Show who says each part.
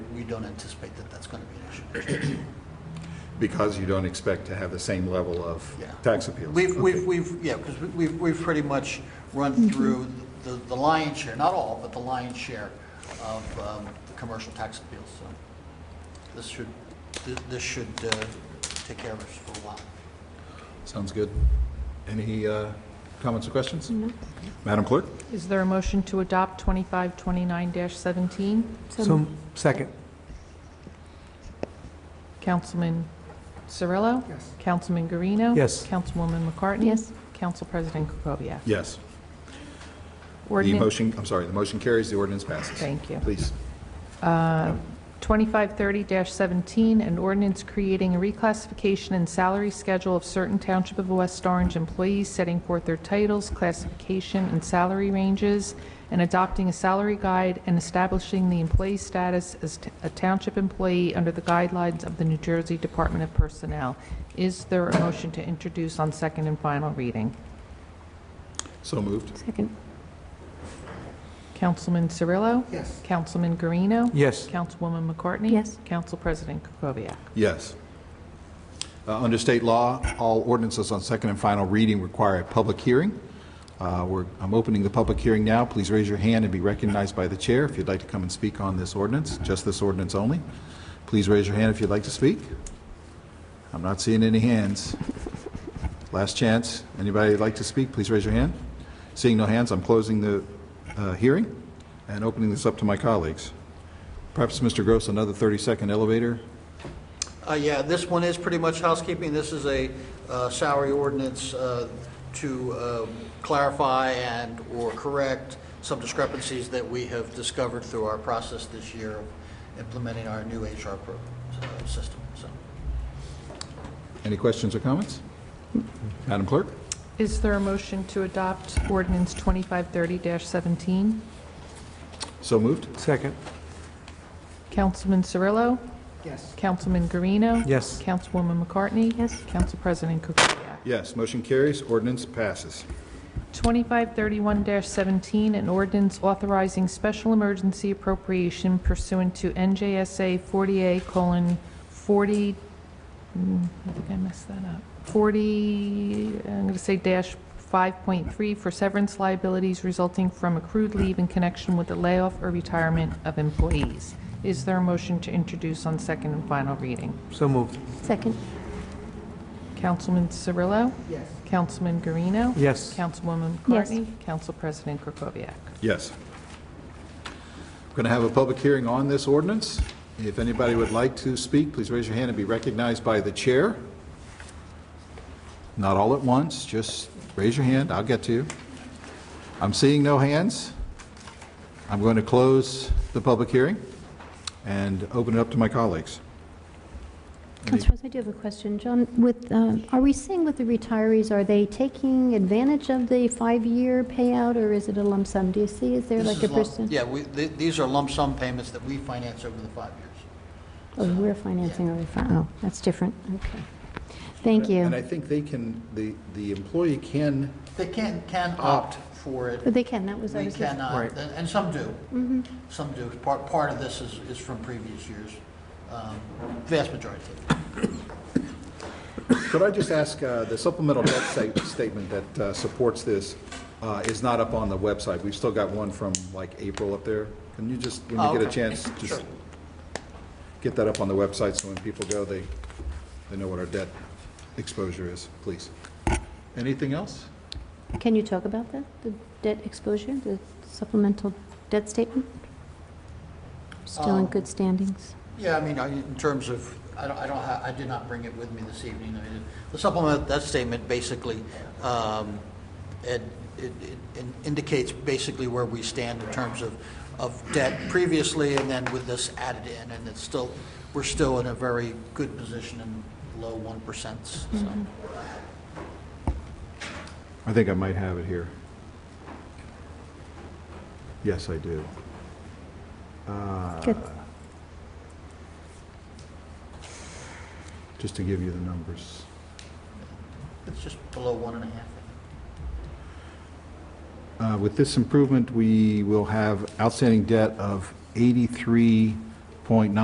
Speaker 1: don't anticipate that that's going to be an issue.
Speaker 2: Because you don't expect to have the same level of
Speaker 1: Yeah.
Speaker 2: tax appeals.
Speaker 1: We've,
Speaker 2: Okay.
Speaker 1: we've, we've, yeah, because we've, we've pretty much run through the the lion's share, not all, but the lion's share of um, the commercial tax appeals, so this should, thi- this should uh, take care of us for a while.
Speaker 2: Sounds good. Any uh, comments or questions? Madam Clerk?
Speaker 3: Is there a motion to adopt 2529-17?
Speaker 4: So, second.
Speaker 3: Councilman Cirillo?
Speaker 4: Yes.
Speaker 3: Councilman Guarino?
Speaker 4: Yes.
Speaker 3: Councilwoman McCartney?
Speaker 5: Yes.
Speaker 3: Council President Kukovia?
Speaker 2: Yes. The
Speaker 3: Ordinance-
Speaker 2: motion, I'm sorry, the motion carries, the ordinance passes.
Speaker 3: Thank you.
Speaker 2: Please.
Speaker 3: 2530-17, an ordinance creating a reclassification and salary schedule of certain Township of West Orange employees, setting forth their titles, classification, and salary ranges, and adopting a salary guide and establishing the employee status as t- a township employee under the guidelines of the New Jersey Department of Personnel. Is there a motion to introduce on second and final reading?
Speaker 2: So moved.
Speaker 5: Second.
Speaker 3: Councilman Cirillo?
Speaker 4: Yes.
Speaker 3: Councilman Guarino?
Speaker 4: Yes.
Speaker 3: Councilwoman McCartney?
Speaker 5: Yes.
Speaker 3: Council President Kukoviac?
Speaker 2: Yes. Uh, Under state law, all ordinances on second and final reading require a public hearing. Uh, we're- I'm opening the public hearing now. Please raise your hand and be recognized by the chair if you'd like to come and speak on this ordinance, just this ordinance only. Please raise your hand if you'd like to speak. I'm not seeing any hands. Last chance. Anybody like to speak, please raise your hand. Seeing no hands, I'm closing the uh, hearing and opening this up to my colleagues. Perhaps, Mr. Gross, another 30-second elevator?
Speaker 1: Uh, Yeah, this one is pretty much housekeeping. This is a uh, salary ordinance uh, to um, clarify and/or correct some discrepancies that we have discovered through our process this year of implementing our new HR pro- uh, system, so.
Speaker 2: Any questions or comments? Madam Clerk?
Speaker 3: Is there a motion to adopt ordinance 2530-17?
Speaker 2: So moved?
Speaker 4: Second.
Speaker 3: Councilman Cirillo?
Speaker 4: Yes.
Speaker 3: Councilman Guarino?
Speaker 4: Yes.
Speaker 3: Councilwoman McCartney?
Speaker 5: Yes.
Speaker 3: Council President Kukoviac?
Speaker 2: Yes, motion carries, ordinance passes.
Speaker 3: 2531-17, an ordinance authorizing special emergency appropriation pursuant to NJSA 40A:40, mm, I think I messed that up, 40, I'm going to say dash 5.3 for severance liabilities resulting from accrued leave in connection with the layoff or retirement of employees. Is there a motion to introduce on second and final reading?
Speaker 4: So moved.
Speaker 5: Second.
Speaker 3: Councilman Cirillo?
Speaker 4: Yes.
Speaker 3: Councilman Guarino?
Speaker 4: Yes.
Speaker 3: Councilwoman
Speaker 5: Yes.
Speaker 3: McCartney? Council President Krokoviac?
Speaker 2: Yes. We're going to have a public hearing on this ordinance. If anybody would like to speak, please raise your hand and be recognized by the chair. Not all at once, just raise your hand, I'll get to you. I'm seeing no hands. I'm going to close the public hearing and open it up to my colleagues.
Speaker 5: Councilor Rose, I do have a question. John, with, um, are we seeing with the retirees, are they taking advantage of the five-year payout, or is it a lump sum? Do you see, is there
Speaker 1: This
Speaker 5: like
Speaker 1: is
Speaker 5: a
Speaker 1: lump-
Speaker 5: person?
Speaker 1: Yeah, we, th- these are lump sum payments that we finance over the five years.
Speaker 5: Oh, we're financing our, refi- oh, that's different, okay. Thank
Speaker 2: And I
Speaker 5: you.
Speaker 2: think they can, the, the employee can
Speaker 1: They can, can opt for
Speaker 5: But
Speaker 1: it.
Speaker 5: they can, that was, I
Speaker 1: We
Speaker 5: was just-
Speaker 1: cannot,
Speaker 4: Right.
Speaker 1: and and some do.
Speaker 5: Mm-hmm.
Speaker 1: Some do. Part, part of this is, is from previous years, um, vast majority of it.
Speaker 2: Could I just ask, uh, the supplemental debt sta- statement that uh, supports this uh, is not up on the website. We've still got one from like April up there. Can you just, when
Speaker 1: Oh,
Speaker 2: you get a
Speaker 1: okay.
Speaker 2: chance, just
Speaker 1: Sure.
Speaker 2: get that up on the website so when people go, they, they know what our debt exposure is, please. Anything else?
Speaker 5: can you talk about that, the debt exposure, the supplemental debt statement? Still
Speaker 1: Um,
Speaker 5: in good standings?
Speaker 1: Yeah, I mean, I- in terms of, I don't, I don't, ha- I did not bring it with me this evening. I mean, The supplement, that statement basically, um, it, it it indicates basically where we stand in terms of, of debt previously and then with this added in, and it's still, we're still in a very good position in low 1%, so.
Speaker 2: I think I might have it here. Yes, I do. Uh,
Speaker 5: Good.
Speaker 2: Just to give you the numbers.
Speaker 1: It's just below one and a half.
Speaker 2: Uh, With this improvement, we will have outstanding debt of 83.9